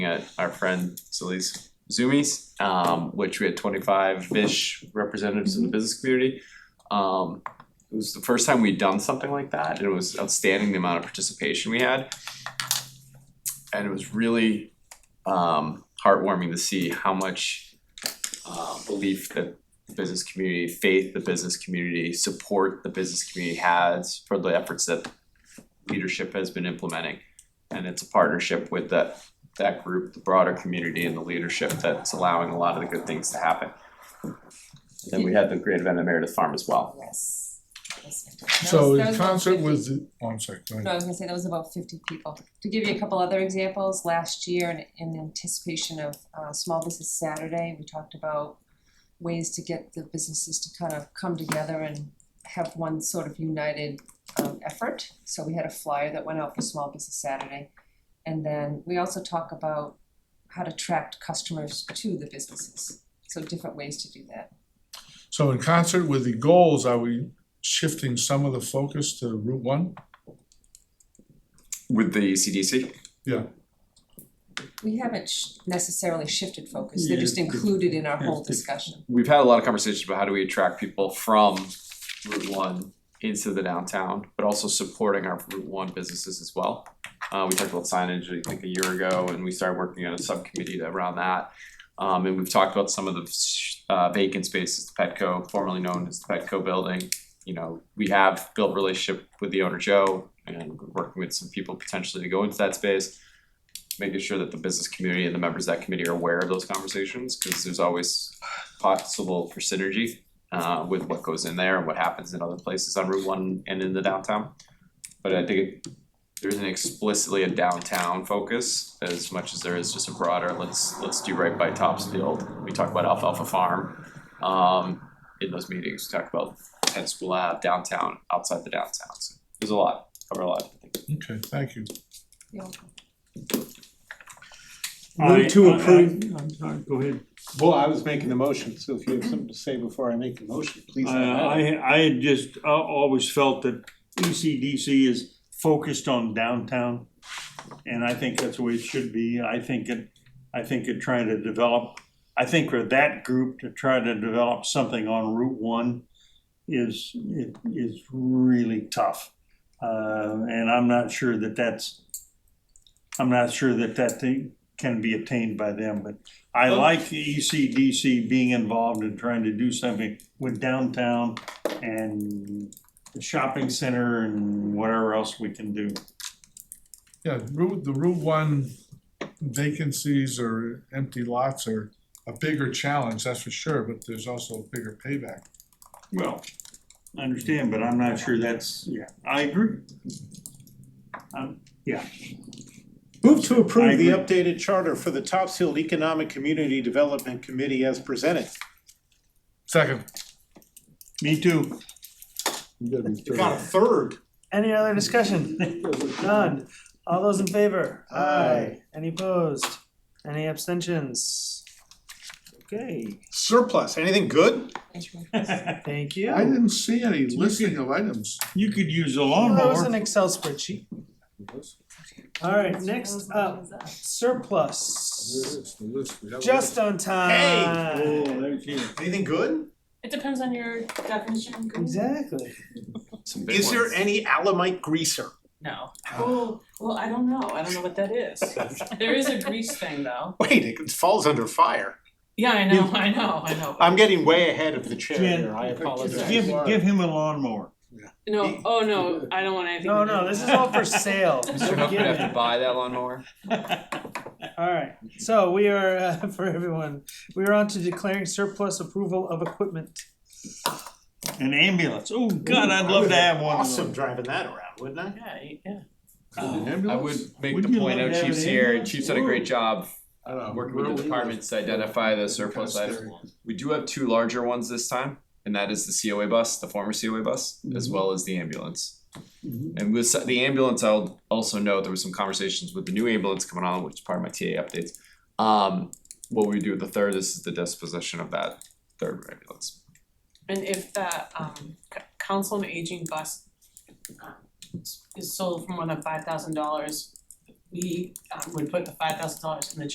at our friend Sully's Zoomies, um, which we had twenty-five-ish representatives in the business community. Um, it was the first time we'd done something like that, and it was outstanding the amount of participation we had. And it was really, um, heartwarming to see how much, uh, belief that the business community, faith the business community, support the business community has for the efforts that leadership has been implementing. And it's a partnership with that that group, the broader community and the leadership that's allowing a lot of the good things to happen. Then we had the great event at Meredith Farm as well. Yes. So That in was about concert 50 with, the- oh, I'm sorry, go No, I ahead. was gonna say that was about fifty people. To give you a couple other examples, last year in in anticipation of uh Small Business Saturday, we talked about ways to get the businesses to kind of come together and have one sort of united um effort. So we had a flyer that went out for Small Business Saturday. And then we also talk about how to attract customers to the businesses, so different ways to do that. So in concert with the goals, are we shifting some of the focus to Route One? With the CDC? We haven't sh- necessarily shifted focus, they're just Yeah, it's- included in our whole it's- it's- discussion. We've had a lot of conversations about how do we attract people from Route One into the downtown, but also supporting our Route One businesses as well. Uh, we talked about signage, I think, a year ago, and we started working on a subcommittee to- around that. Um, and we've talked about some of the s- uh, vacant spaces, the Petco, formerly known as the Petco building. You know, we have built relationship with the owner Joe, and we're working with some people potentially to go into that space. Making sure that the business community and the members of that committee are aware of those conversations, because there's always possible for synergy uh, with what goes in there and what happens in other places on Route One and in the downtown. But I think there isn't explicitly a downtown focus as much as there is just a broader, let's, let's do right by Topsfield. We talk about Alfalfa Farm, um, in those meetings, we talk about Penn School Ave, downtown, outside the downtown, so there's a lot, cover a lot. Okay, thank you. Yeah. Move to I- I- approve. I- I'm sorry, go ahead. Well, I was making the motion, so if you have something to say before I make the motion, please. I, Uh, I, I had just, uh, always felt that E ECDC is focused on downtown. And I think that's the way it should be. I think it, I think it trying to develop, I think for that group to try to develop something on Route One is, it is really tough. Uh, and I'm not sure that that's, I'm not sure that that thing can be attained by them, but I like the E ECDC being involved in trying to do something with downtown and the shopping center and whatever else we can do. Yeah, Route, the Route One vacancies or empty lots are a bigger challenge, that's for sure, but there's also a bigger payback. Well. I understand, but I'm not sure that's, yeah, I agree. Um, Move to I approve the agree. updated charter for the Topsfield Economic Community Development Committee as presented. Second, me too. You got a third. Any other discussion? None. All those in favor? Aye. Any opposed? Any abstentions? Okay, Surplus, anything good? Thank you. thank you. I didn't see any listing of items. You could use a That was an lawnmower. Excel spreadsheet. Alright, next up, surplus. Just on time. there she is. Anything good? It depends on your definition. of good. Exactly. Some big Is there ones. any Alamite greaser? No. Oh, well, I don't know. I don't know what that is. there is a grease thing though. Wait, it falls under fire. Yeah, I know, I know, I know. I'm getting way ahead of the chair Jen, here, I apologize. Give, give him a lawnmower. No, oh no, I don't want anything. No, to do no, with this is that. all for sale. Mr. Hook would have to Forgive me. buy that lawnmower. Alright, so we are, uh, for everyone, we are on to declaring surplus approval of equipment. An ambulance. Oh, God, I'd love to have one of Awesome those. driving that around, wouldn't I? Yeah, yeah. I would make Would the you point like out to have Chief's an here, ambulance? Chief's done a great job I don't know. Uh, working with the departments to identify the surplus Kinda items. scary. We do have two larger ones this time, and that is the COA bus, the former COA bus, as well as the ambulance. And with s- the ambulance, I'll also note there was some conversations with the new ambulance coming on, which is part of my TA updates. Um, what we do with the third, this is the disposition of that third ambulance. And if the um c- council on aging bus um, is sold for more than five thousand dollars, we um would put the five thousand dollars in the